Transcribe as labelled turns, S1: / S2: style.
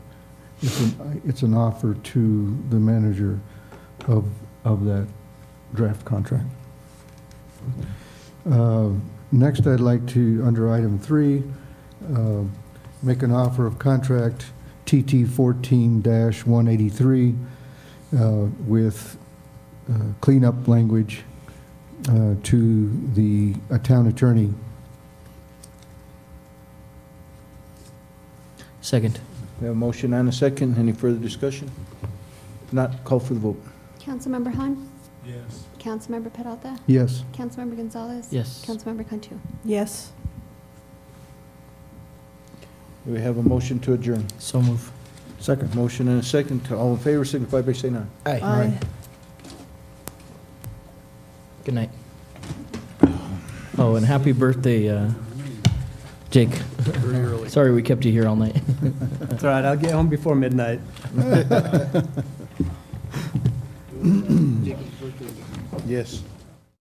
S1: It's an, it's an offer to the manager of, of that draft contract. Uh, Next, I'd like to, under item three, uh, make an offer of contract TT fourteen one eighty-three with uh, cleanup language uh, to the uh, town attorney.
S2: Second.
S3: We have a motion and a second. Any further discussion? If Not call for the vote.
S4: Councilmember Han,
S5: Yes.
S4: Councilmember Peralta,
S1: Yes,
S4: Councilmember Gonzalez.
S2: Yes.
S4: Councilmember Cantu.
S6: Yes.
S3: We have a motion to adjourn.
S2: So move.
S3: Second. Motion and a second. All in favor, signify by saying aye.
S6: Aye.
S2: Good night. Oh, and happy birthday, uh, Jake. Sorry we kept you here all night.
S7: That's all right, I'll get home before midnight.
S3: Yes.